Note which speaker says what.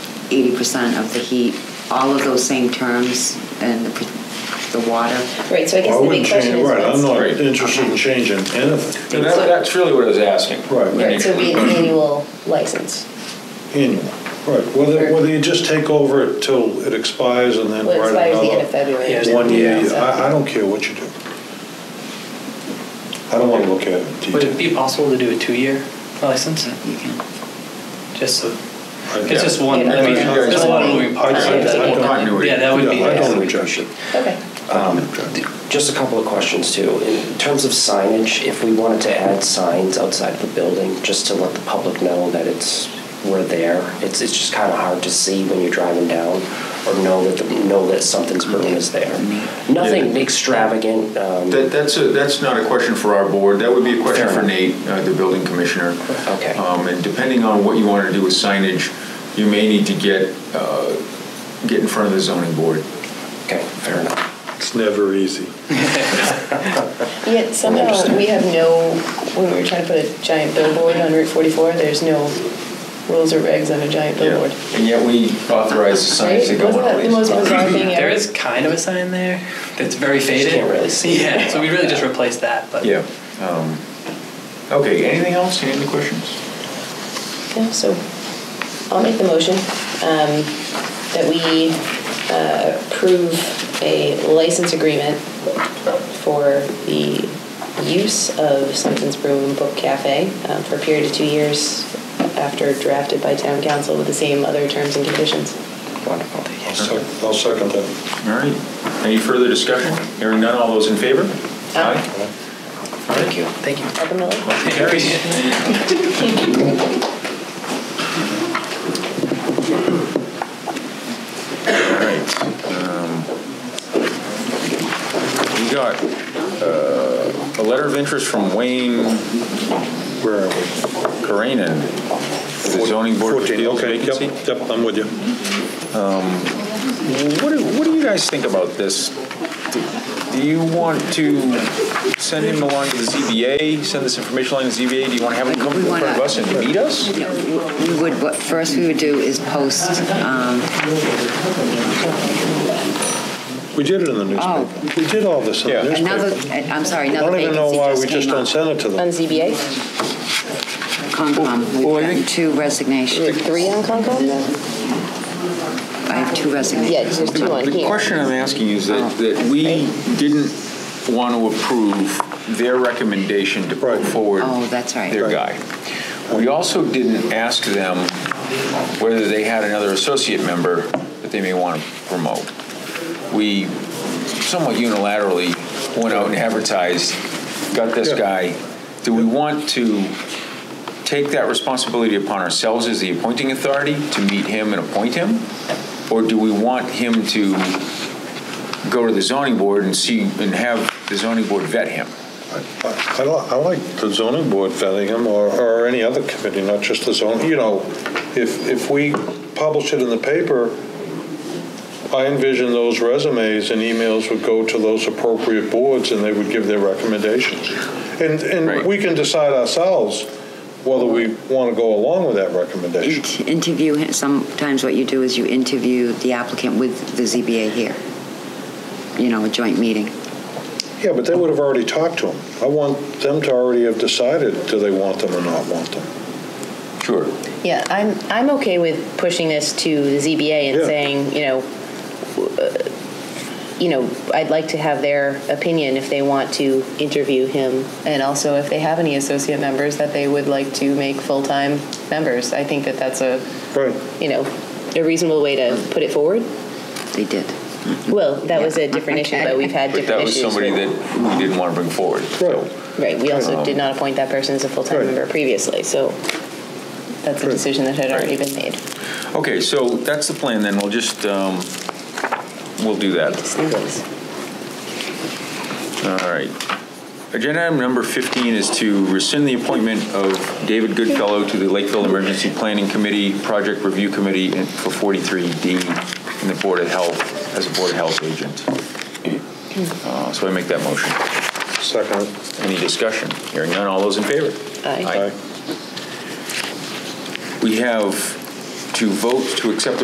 Speaker 1: eighty percent of the heat, all of those same terms and the, p- the water.
Speaker 2: Right, so
Speaker 3: Well, I
Speaker 2: I guess the big
Speaker 3: wouldn't
Speaker 2: question
Speaker 3: change,
Speaker 2: is
Speaker 3: right, I'm
Speaker 2: what's,
Speaker 3: not
Speaker 4: Right.
Speaker 3: interested in changing
Speaker 4: And
Speaker 3: anything.
Speaker 4: that, that's really what I was asking.
Speaker 3: Right,
Speaker 2: right, so it'd be an annual license.
Speaker 3: annual, right, whether, whether you just take over it till it expires and then
Speaker 2: Well, it
Speaker 3: write
Speaker 2: expires the end
Speaker 3: another
Speaker 2: of February. or
Speaker 3: one
Speaker 2: something,
Speaker 3: year,
Speaker 2: so-
Speaker 3: I, I don't care what you do. I don't wanna look at it in
Speaker 5: Would it
Speaker 3: detail.
Speaker 5: be possible to do a two-year license?
Speaker 1: You can,
Speaker 5: Just so,
Speaker 3: I-
Speaker 5: it's just one,
Speaker 2: Yeah.
Speaker 5: I mean,
Speaker 2: Yeah.
Speaker 5: there's a lot of moving parts.
Speaker 3: I- I- I don't-
Speaker 5: Yeah, that would be.
Speaker 3: Yeah, I don't object it.
Speaker 2: Okay,
Speaker 3: I don't object it.
Speaker 6: Um, Just a couple of questions too. In terms of signage, if we wanted to add signs outside the building, just to let the public know that it's, we're there, it's, it's just kind of hard to see when you're driving down or know that, the- know that something's
Speaker 3: Mm-hmm.
Speaker 6: brewing is there. Nothing extravagant, um,
Speaker 4: That, that's, a, that's not a question for our board. That would be a question
Speaker 6: Fair
Speaker 4: for
Speaker 6: enough.
Speaker 4: Nate, uh, the building commissioner.
Speaker 6: Okay.
Speaker 4: Um, and depending on what you want to do with signage, you may need to get uh, get in front of the zoning board.
Speaker 6: okay, fair enough.
Speaker 3: It's never easy.
Speaker 2: yet somehow we have no, when we were trying to put a giant billboard on Route 44, there's no rules or regs on a giant billboard.
Speaker 4: And yet we authorize the signs to
Speaker 2: Right?
Speaker 4: go
Speaker 2: Wasn't
Speaker 4: on
Speaker 2: that the
Speaker 4: police.
Speaker 2: most bizarre thing ever?
Speaker 5: There is kind of a sign there that's very faded.
Speaker 6: can't really see it.
Speaker 5: Yeah, so we really just replaced that, but.
Speaker 4: Yeah. Um, okay. Anything else? Any other questions?
Speaker 2: Yeah, so I'll make the motion um, that we uh, approve a license agreement for the use of Simpson's Brew and Book Cafe um, for a period of two years after drafted by town council with the same other terms and conditions.
Speaker 6: Wonderful.
Speaker 3: I'll sec- I'll second that.
Speaker 4: All right. Any further discussion? Hearing none. All those in favor?
Speaker 2: Aye.
Speaker 6: Thank you. Thank you.
Speaker 2: Welcome, Millie.
Speaker 4: Motion carries. All right. um, We got uh, a letter of interest from Wayne
Speaker 3: Where are we?
Speaker 4: Karanen, for the zoning board of
Speaker 3: 14,
Speaker 4: appeals
Speaker 3: okay, yep,
Speaker 4: vacancy.
Speaker 3: Yep, I'm with you.
Speaker 4: What do, what do you guys think about this? Do- Do you want to send him along to the ZBA, send this information along to the ZBA? Do you want to have him come in front of us and meet us?
Speaker 1: you know, we would, what, first we would do is post, um,
Speaker 3: We did it
Speaker 5: Oh.
Speaker 3: in the newspaper. We did all this in
Speaker 4: Yeah.
Speaker 3: the
Speaker 1: another, uh,
Speaker 3: newspaper.
Speaker 1: I'm sorry,
Speaker 3: I
Speaker 1: another
Speaker 3: don't even know
Speaker 1: vacancy
Speaker 3: why we
Speaker 1: just
Speaker 3: just
Speaker 1: came
Speaker 3: don't
Speaker 1: up.
Speaker 3: send it to
Speaker 2: On
Speaker 3: them.
Speaker 2: ZBA,
Speaker 1: Concom, we've
Speaker 3: Well, I
Speaker 1: gotten
Speaker 3: think-
Speaker 1: two
Speaker 2: we have
Speaker 1: resignations.
Speaker 2: three on Concom now?
Speaker 1: I have two resignations.
Speaker 2: Yeah, there's two on
Speaker 4: The
Speaker 2: here.
Speaker 4: question I'm asking you is that, that we didn't want to approve their recommendation to put
Speaker 3: Right.
Speaker 4: forward
Speaker 1: Oh, that's right.
Speaker 4: their guy. We also didn't ask them whether they had another associate member that they may want to promote. We somewhat unilaterally went out and advertised, got this
Speaker 3: Yeah.
Speaker 4: guy. Do we want to take that responsibility upon ourselves as the appointing authority to meet him and appoint him? Or do we want him to go to the zoning board and see, and have the zoning board vet him?
Speaker 3: I I li- I like the zoning board vetting them, or, or any other committee, not just the zoning, you know, if, if we publish it in the paper, I envision those resumes and emails would go to those appropriate boards, and they would give their recommendations. And,
Speaker 4: Right.
Speaker 3: and we can decide ourselves whether we want to go along with that recommendation.
Speaker 1: Int- Interview, him- sometimes what you do is you interview the applicant with the ZBA here, you know, a joint meeting.
Speaker 3: Yeah, but they would have already talked to them. I want them to already have decided, do they want them or not want them?
Speaker 4: Sure.
Speaker 2: Yeah, I'm, I'm okay with pushing this to the ZBA and
Speaker 3: Yeah.
Speaker 2: saying, you know, uh, you know, I'd like to have their opinion if they want to interview him, and also if they have any associate members that they would like to make full-time members. I think that that's a,
Speaker 3: Right.
Speaker 2: you know, a reasonable way to put it forward.
Speaker 1: They did.
Speaker 2: Well, that was a different issue, but we've had
Speaker 4: But
Speaker 2: different
Speaker 4: that was
Speaker 2: issues.
Speaker 4: somebody that
Speaker 2: with-
Speaker 4: we didn't want to bring forward.
Speaker 3: Right.
Speaker 2: Right, we also did not appoint that person as a full-time
Speaker 3: Right.
Speaker 2: member previously, so that's a
Speaker 3: Right.
Speaker 2: decision that had already
Speaker 4: Right.
Speaker 2: been made.
Speaker 4: Okay, so that's the plan then. We'll just, um, we'll do that. All right. Agenda item number 15 is to rescind the appointment of David Goodfellow to the Lakeville Emergency Planning Committee, Project Review Committee and- for 43D and the Board of Health, as a Board of Health agent. Uh, So I make that motion.
Speaker 3: Second.
Speaker 4: Any discussion? Hearing none, all those in favor?
Speaker 2: Aye.
Speaker 3: Aye.
Speaker 4: We have to vote to accept the